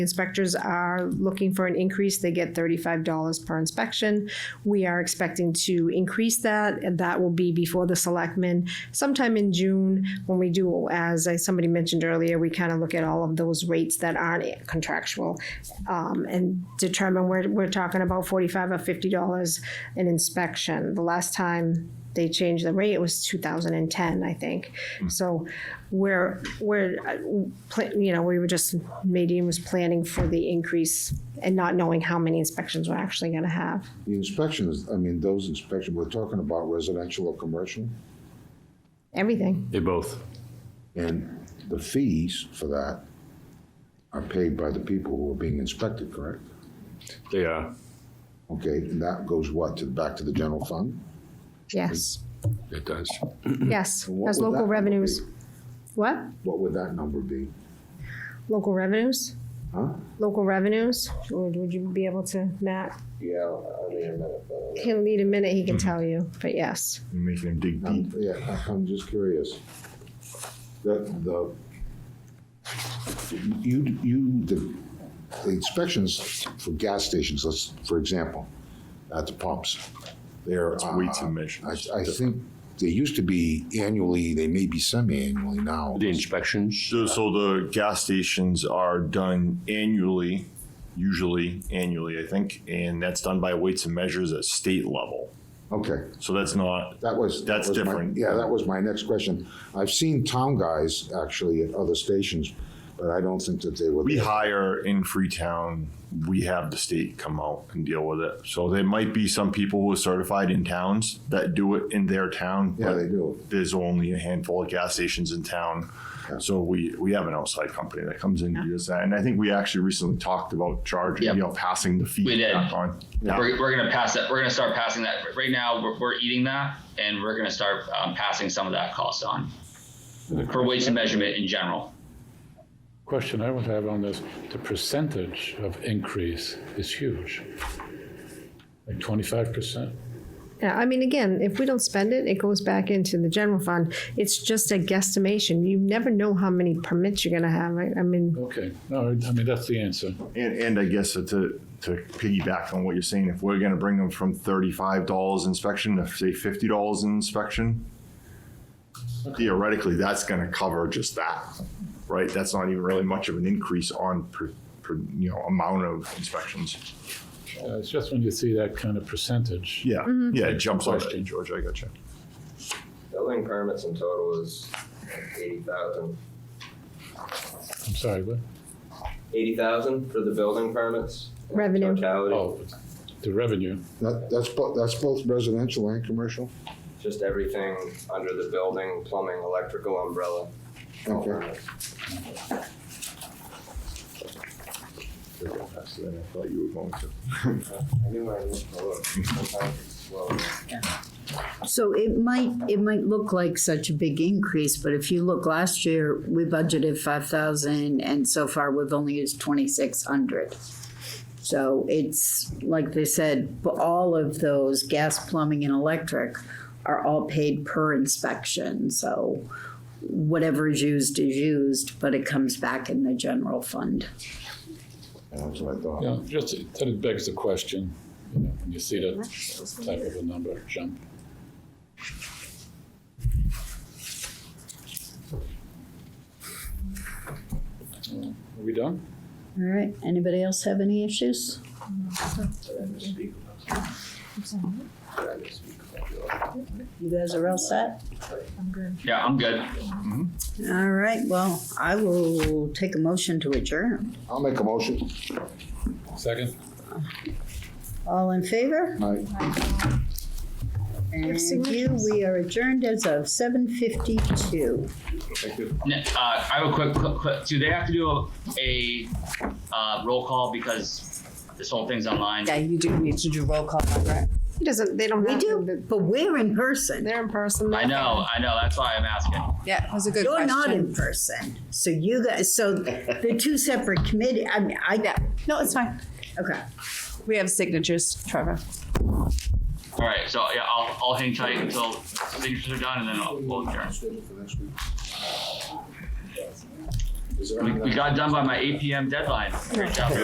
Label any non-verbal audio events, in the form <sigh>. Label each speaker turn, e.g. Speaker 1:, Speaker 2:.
Speaker 1: Inspectors are looking for an increase. They get thirty-five dollars per inspection. We are expecting to increase that, and that will be before the selectmen sometime in June when we do, as I- somebody mentioned earlier, we kind of look at all of those rates that aren't contractual um, and determine where we're talking about forty-five or fifty dollars an inspection. The last time they changed the rate, it was two thousand and ten, I think. So we're, we're, uh, pla- you know, we were just, Nadine was planning for the increase and not knowing how many inspections we're actually gonna have.
Speaker 2: The inspections, I mean, those inspections, we're talking about residential or commercial,
Speaker 1: Everything,
Speaker 3: They both.
Speaker 2: and the fees for that are paid by the people who are being inspected, correct?
Speaker 3: They uh, are.
Speaker 2: Okay, and that goes what, to, back to the general fund?
Speaker 1: yes,
Speaker 2: <clears throat>
Speaker 3: It does.
Speaker 1: yes,
Speaker 2: And what
Speaker 1: as
Speaker 2: would that
Speaker 1: local
Speaker 2: number
Speaker 1: revenues.
Speaker 2: be?
Speaker 1: What?
Speaker 2: What would that number be?
Speaker 1: Local revenues?
Speaker 2: Huh?
Speaker 1: Local revenues, or would you be able to, Matt?
Speaker 2: Yeah, I mean, a minute, but.
Speaker 1: He'll need a minute,
Speaker 2: Hmm.
Speaker 1: he can tell you, but yes.
Speaker 3: Making him dig
Speaker 2: I'm, yeah, I- I'm just curious. The, the, you, you, the the inspections for gas stations, let's, for example, at the pumps, they're.
Speaker 3: It's weights and
Speaker 2: uh,
Speaker 3: measures.
Speaker 2: I, I think they used to be annually, they may be semi-annually now.
Speaker 3: The inspections.
Speaker 4: So, so the gas stations are done annually, usually annually, I think, and that's done by weights and measures at state level.
Speaker 2: Okay,
Speaker 4: So that's not,
Speaker 2: that was. that
Speaker 4: That's
Speaker 2: was my-
Speaker 4: different.
Speaker 2: Yeah, that was my next question. I've seen town guys actually at other stations, but I don't think that they were.
Speaker 4: we hire in Freetown, we have the state come out and deal with it. So there might be some people who are certified in towns that do it in their town.
Speaker 2: Yeah,
Speaker 4: but
Speaker 2: they do.
Speaker 4: There's only a handful of gas stations in town. So we, we have an outside company that comes in and does that. And I think we actually recently talked about charging,
Speaker 5: Yep.
Speaker 4: you know, passing the fee
Speaker 5: We did.
Speaker 4: back on.
Speaker 5: We're, we're gonna pass that. We're gonna start passing that. Right now, we're, we're eating that, and we're gonna start um, passing some of that cost on for weights and measurement in general.
Speaker 6: Question I would have on this, the percentage of increase is huge. Like twenty-five percent.
Speaker 1: Yeah, I mean, again, if we don't spend it, it goes back into the general fund. It's just a guesstimation. You never know how many permits you're gonna have. I, I mean,
Speaker 6: Okay, no, I mean, that's the answer.
Speaker 4: And, and I guess to, to piggyback on what you're saying, if we're gonna bring them from thirty-five dollars inspection to say fifty dollars inspection, theoretically, that's gonna cover just that, right? That's not even really much of an increase on per, per, you know, amount of inspections.
Speaker 6: Uh, It's just when you see that kind of percentage.
Speaker 4: Yeah, yeah, it jumps out at you,
Speaker 6: Question.
Speaker 4: George, I got you.
Speaker 7: Building permits in total is eighty thousand.
Speaker 6: I'm sorry, what?
Speaker 7: Eighty thousand for the building permits? in
Speaker 1: Revenue.
Speaker 7: Totality,
Speaker 6: Oh, the revenue.
Speaker 2: That, that's, bo- that's both residential and commercial?
Speaker 7: just everything under the building, plumbing, electrical umbrella. all
Speaker 2: Okay.
Speaker 7: permits.
Speaker 4: I thought you were going to.
Speaker 7: I knew I looked forward. Sometimes it's slow.
Speaker 8: So it might, it might look like such a big increase, but if you look last year, we budgeted five thousand and so far we've only used twenty-six hundred. So it's, like they said, b- all of those, gas, plumbing and electric are all paid per inspection, so whatever is used is used, but it comes back in the general fund.
Speaker 2: That's what I thought.
Speaker 6: You know, just, that it begs the question, you know, when you see that type of a number jump. Uh, Are we done?
Speaker 8: All right, anybody else have any issues? You guys are all set?
Speaker 5: Yeah, I'm good.
Speaker 8: All right, well, I will take a motion to adjourn.
Speaker 2: I'll make a motion.
Speaker 6: Second?
Speaker 8: All in favor?
Speaker 2: Aye.
Speaker 8: Thank you. We are adjourned as of seven fifty-two.
Speaker 5: Ne- Uh, I have a quick, quick, quick. Do they have to do a, a uh, roll call because this whole thing's online?
Speaker 8: Yeah, you do need to do roll call, right?
Speaker 1: it doesn't, they don't
Speaker 8: We
Speaker 1: have
Speaker 8: do,
Speaker 1: to,
Speaker 8: but we're in person.
Speaker 1: they're in person.
Speaker 5: I know, I know. That's why I'm asking.
Speaker 9: Yeah, that was a good
Speaker 8: You're
Speaker 9: question.
Speaker 8: not in person, so you guys, so the two separate committee, I mean, I,
Speaker 9: no, it's fine.
Speaker 8: okay.
Speaker 9: We have signatures, Trevor.
Speaker 5: All right, so yeah, I'll, I'll hang tight until signatures are done, and then I'll, we'll adjourn.
Speaker 2: Schedule for next week. Is there
Speaker 5: We,
Speaker 2: anything-
Speaker 5: we got done by my eight PM deadline. Great job.